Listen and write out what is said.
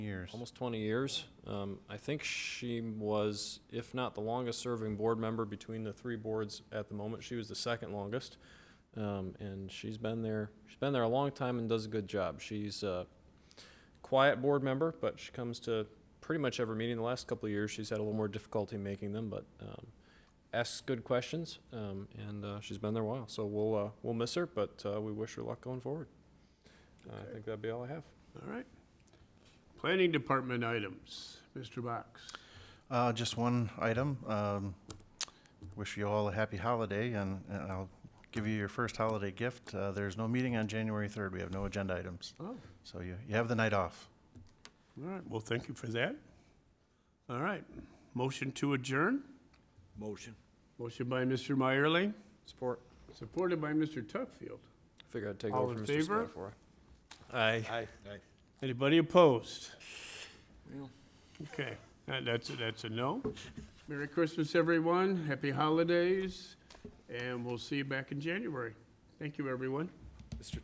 years. almost 20 years. Um, I think she was, if not the longest-serving board member between the three boards at the moment, she was the second longest. Um, And she's been there, she's been there a long time and does a good job. She's a quiet board member, but she comes to pretty much every meeting. The last couple of years, she's had a little more difficulty making them, but um, asks good questions, um, and uh, she's been there a while. So we'll, uh, we'll miss her, but uh, we wish her luck going forward. Uh, I Okay. think that'd be all I have. All right. Planning Department items, Mr. Box. Uh, just one item. Um, wish you all a happy holiday, and, and I'll give you your first holiday gift. Uh, there's no meeting on January 3rd. We have no agenda items. Oh, all So you, you have the night off. right, well, thank you for that. All right, motion to adjourn? Motion. Motion by Mr. Meyerly, Support. supported by Mr. Tuckfield. Figure I'd take All over in from Mr. favor? Spatafora. Aye. Aye. Anybody opposed? Well. Okay, that- that's, a- that's a no. Merry Christmas, everyone, happy holidays, and we'll see you back in January. Thank you, everyone.